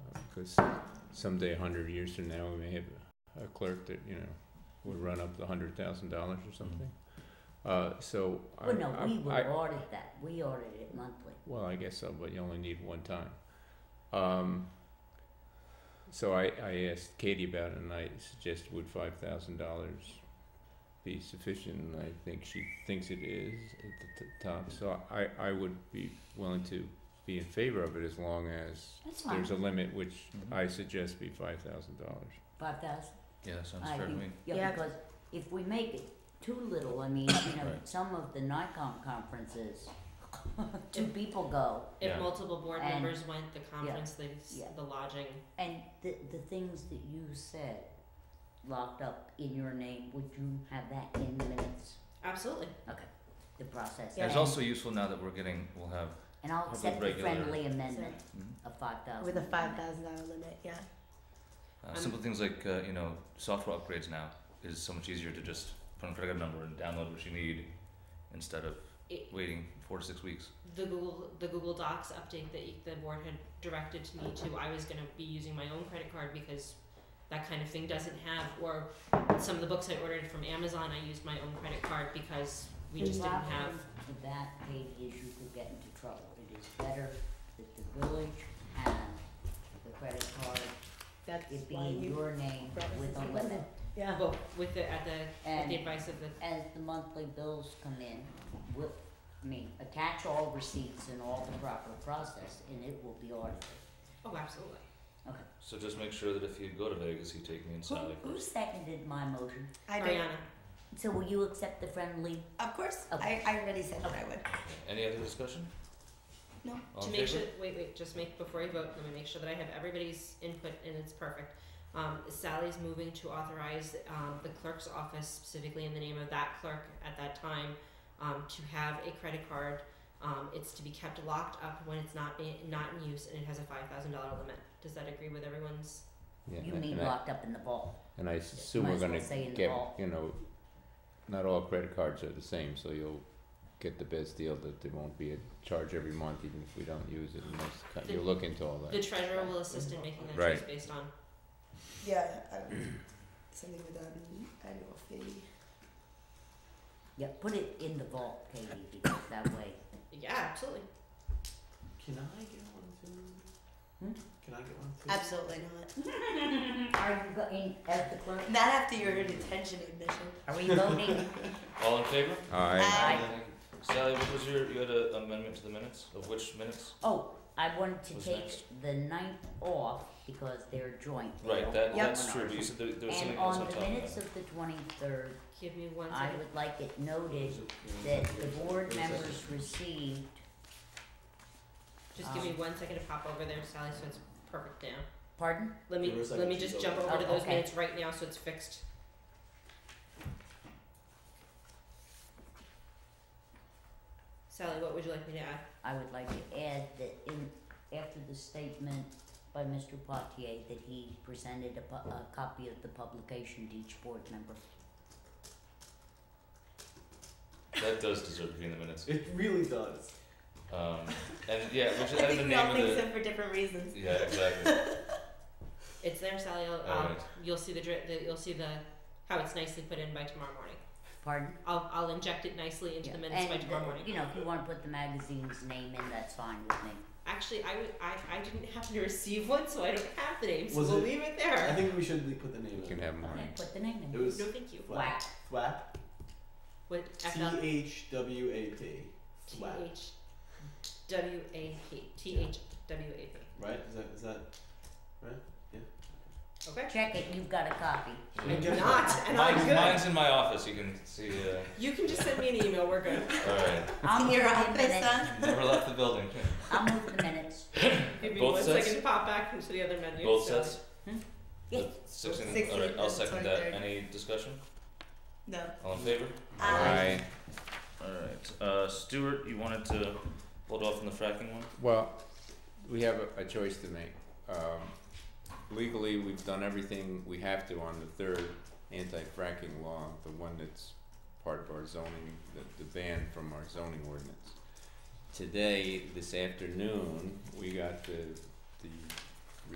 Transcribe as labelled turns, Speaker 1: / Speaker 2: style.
Speaker 1: because someday, a hundred years from now, we may have a clerk that, you know, would run up the hundred thousand dollars or something. Uh, so I,
Speaker 2: Well, no, we
Speaker 1: I,
Speaker 2: would audit that, we audit it monthly.
Speaker 1: Well, I guess so, but you only need one time. Um, so I, I asked Katie about it and I suggested would five thousand dollars be sufficient? And I think she thinks it is at the t- top, so I, I would be willing to be in favor of it as long as
Speaker 2: That's
Speaker 1: there's a
Speaker 2: fine,
Speaker 1: limit, which
Speaker 3: Mhm.
Speaker 1: I suggest be five thousand dollars.
Speaker 2: five thousand,
Speaker 3: Yeah, that sounds
Speaker 2: I
Speaker 3: fair to
Speaker 2: think,
Speaker 3: me.
Speaker 2: yeah,
Speaker 4: Yeah.
Speaker 2: because if we make it too little, I mean, you know,
Speaker 3: Right.
Speaker 2: some of the NICOM conferences, two people go,
Speaker 4: If
Speaker 3: Yeah.
Speaker 4: multiple board
Speaker 2: And-
Speaker 4: members went, the conference, the s-
Speaker 2: yeah.
Speaker 4: the lodging.
Speaker 2: and the, the things that you said locked up in your name, would you have that in minutes?
Speaker 4: Absolutely.
Speaker 2: Okay, the process.
Speaker 3: And it's
Speaker 2: And-
Speaker 3: also useful now that we're getting, we'll have,
Speaker 2: And I'll
Speaker 3: Have a
Speaker 2: accept the
Speaker 3: regular-
Speaker 2: friendly amendment
Speaker 3: Mhm.
Speaker 2: of five thousand.
Speaker 5: With a five thousand dollar limit, yeah.
Speaker 3: uh,
Speaker 4: Um,
Speaker 3: simple things like, uh, you know, software upgrades now is so much easier to just put in front of a number and download what you need instead of
Speaker 4: It-
Speaker 3: waiting four to six weeks.
Speaker 4: The Google the Google Docs update that you, the board had directed to me to, I was going to be using my own credit card because that kind of thing doesn't have. Or some of the books I ordered from Amazon, I used my own credit card because we just didn't have.
Speaker 2: The problem with that, Katie, is you could get into trouble. It is better that the village have the credit card,
Speaker 5: That's
Speaker 2: it be
Speaker 5: why
Speaker 2: in
Speaker 5: you,
Speaker 2: your name
Speaker 5: brought us
Speaker 2: with
Speaker 5: this
Speaker 2: a limit.
Speaker 5: together. yeah.
Speaker 4: Well, with the at the with
Speaker 2: And-
Speaker 4: the advice of the
Speaker 2: As the monthly bills come in, we'll, I mean, attach all receipts and all the proper process, and it will be audited.
Speaker 4: oh, absolutely.
Speaker 2: Okay.
Speaker 3: So just make sure that if you go to Vegas, you take me
Speaker 2: Who, who seconded my motion?
Speaker 5: I do.
Speaker 4: Ariana,
Speaker 2: So will you accept the friendly?
Speaker 5: Of course,
Speaker 2: Okay.
Speaker 5: I, I already said that I would.
Speaker 3: Any other discussion?
Speaker 5: No.
Speaker 3: All
Speaker 4: to
Speaker 3: in
Speaker 4: make
Speaker 3: favor?
Speaker 4: sure wait wait just make before you vote let me make sure that i have everybody's input and it's perfect um, sally's moving to authorize um, the clerk's office specifically in the name of that clerk at that time um, to have a credit card um, it's to be kept locked up when it's not in, not in use and it has a $5000 limit does that agree with everyone's
Speaker 1: Yeah,
Speaker 2: You
Speaker 1: and
Speaker 2: mean
Speaker 1: I-
Speaker 2: locked up in the vault?
Speaker 1: And I assume
Speaker 2: Might
Speaker 1: we're
Speaker 2: as well
Speaker 1: gonna
Speaker 2: say in the
Speaker 1: get,
Speaker 2: vault.
Speaker 1: you know, not all credit cards are the same, so you'll get the best deal that there won't be a charge every month even if we don't use it unless cut-
Speaker 4: The-
Speaker 1: you look into all
Speaker 4: the
Speaker 1: that.
Speaker 4: treasurer will assist in
Speaker 3: Mm-hmm.
Speaker 4: making that
Speaker 1: Right.
Speaker 4: choice based on
Speaker 5: Yeah, I would. Something with an annual fee.
Speaker 2: Yeah, put it in the vault, Katie, because that way,
Speaker 4: yeah absolutely
Speaker 6: Can I get one too?
Speaker 2: Hmm?
Speaker 6: Can I get one too?
Speaker 5: Absolutely not.
Speaker 2: are you going, as the clerk,
Speaker 3: Hmm?
Speaker 5: Not after your detention admission.
Speaker 2: are we voting?
Speaker 3: All in favor?
Speaker 1: Aye,
Speaker 2: Aye.
Speaker 3: Sally, what was your, you had an amendment to the minutes? Of which minutes?
Speaker 2: Oh, I wanted to
Speaker 3: Who's
Speaker 2: take
Speaker 3: next?
Speaker 2: the ninth off because they're joint. They
Speaker 3: Right,
Speaker 2: don't
Speaker 3: that,
Speaker 2: have
Speaker 3: that's
Speaker 2: one
Speaker 3: true,
Speaker 2: hour.
Speaker 3: but you said there, there was something
Speaker 2: And
Speaker 3: else
Speaker 2: on
Speaker 3: on top
Speaker 2: the
Speaker 3: of that.
Speaker 2: minutes of the twenty-third,
Speaker 4: give me one
Speaker 2: I
Speaker 4: second
Speaker 2: would like it noted that the board members received,
Speaker 4: just give me
Speaker 2: um,
Speaker 4: one second to pop over there sally so it's perfect now
Speaker 2: pardon?
Speaker 4: Let me
Speaker 6: Give her a second,
Speaker 4: let me
Speaker 6: she's
Speaker 4: just
Speaker 6: over
Speaker 4: jump
Speaker 6: there.
Speaker 4: over to
Speaker 2: Oh,
Speaker 4: those
Speaker 2: okay.
Speaker 4: minutes right now so it's fixed. Sally, what would you like me to add?
Speaker 2: I would like to add that in, after the statement by Mr. Potier that he presented a pu- a copy of the publication to each board member.
Speaker 3: That does deserve to be in the minutes.
Speaker 6: It really does.
Speaker 3: Um, and yeah, which is
Speaker 5: I
Speaker 3: added the
Speaker 5: think we all
Speaker 3: name
Speaker 5: think
Speaker 3: of the.
Speaker 5: so for different reasons.
Speaker 3: Yeah, exactly.
Speaker 4: It's there, Sally. I'll, I'll,
Speaker 3: Alright.
Speaker 4: You'll see the, dri- the you'll see the how it's nicely put in by tomorrow morning.
Speaker 2: Pardon?
Speaker 4: I'll I'll inject it nicely into
Speaker 2: Yeah,
Speaker 4: the minutes by
Speaker 2: and,
Speaker 4: tomorrow
Speaker 2: uh,
Speaker 4: morning.
Speaker 2: You know, if you wanna put the magazine's name in, that's fine with me.
Speaker 4: Actually, I would I, I didn't happen to receive one, so I don't have the name. So
Speaker 6: Was
Speaker 4: we'll
Speaker 6: it-
Speaker 4: leave it
Speaker 6: I
Speaker 4: there.
Speaker 6: think we should put the name
Speaker 1: you can
Speaker 6: in.
Speaker 1: have
Speaker 2: Okay,
Speaker 1: mine.
Speaker 2: put the name
Speaker 6: It
Speaker 2: in.
Speaker 6: was
Speaker 4: No, thank you.
Speaker 2: Whack.
Speaker 6: Thwap.
Speaker 4: What F
Speaker 6: T
Speaker 4: L
Speaker 6: H W A P.
Speaker 4: T
Speaker 6: Thwap.
Speaker 4: H W A P T H W A P.
Speaker 6: Right? Is that is that?
Speaker 4: Okay.
Speaker 2: Check it, you've got a copy.
Speaker 4: I do
Speaker 6: Yeah.
Speaker 4: not, and I'm
Speaker 3: mine's,
Speaker 4: good.
Speaker 3: mine's in my office. You can see. Uh,
Speaker 4: You can just send me an email. We're good.
Speaker 3: all right.
Speaker 2: I'll
Speaker 5: in your
Speaker 2: move the
Speaker 5: office,
Speaker 2: minutes.
Speaker 5: huh?
Speaker 3: Never left the building.
Speaker 2: I'll move the minutes.
Speaker 4: Give me
Speaker 3: Both
Speaker 4: one second
Speaker 3: sets?
Speaker 4: to pop back into the other menu.
Speaker 3: Both
Speaker 4: so-
Speaker 3: sets.
Speaker 2: Yes.
Speaker 3: The Six and,
Speaker 5: Six
Speaker 3: all right.
Speaker 5: and
Speaker 3: I'll
Speaker 5: the
Speaker 3: second that.
Speaker 5: 23rd.
Speaker 3: Any discussion?
Speaker 5: No.
Speaker 3: All in favor?
Speaker 5: Aye.
Speaker 3: All right. Uh, Stuart, you wanted to hold off on the fracking one.
Speaker 1: Well, we have a, a choice to make. Um, legally, we've done everything we have to on the third anti-fracking law, the one that's part of our zoning, the, the ban from our zoning ordinance. Today, this afternoon, we got the, the